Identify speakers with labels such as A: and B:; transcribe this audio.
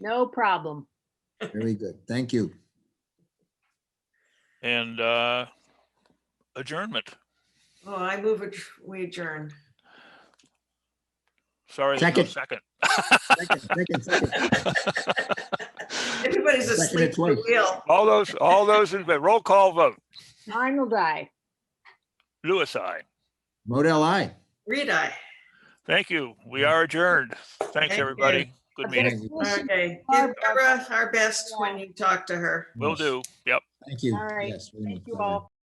A: No problem.
B: Very good. Thank you.
C: and uh, adjournment.
D: Oh, I move, adj- we adjourn.
C: Sorry, there's no
B: Second.
C: second.
B: Second, second, second.
D: Everybody's
B: Second
D: asleep at
B: at
D: the
B: twice.
D: wheel.
C: All those, all those, in favor. roll call vote.
A: Arnold, I.
C: Lewis, I.
B: Model I.
D: Read I.
C: Thank you. We are adjourned. Thanks,
D: you.
C: everybody. Good meeting.
D: Okay. Give Barbara our best when you talk to her.
C: Will do. Yep.
B: Thank you.
A: All right.
B: Yes, we
A: Thank
B: will.
A: you all.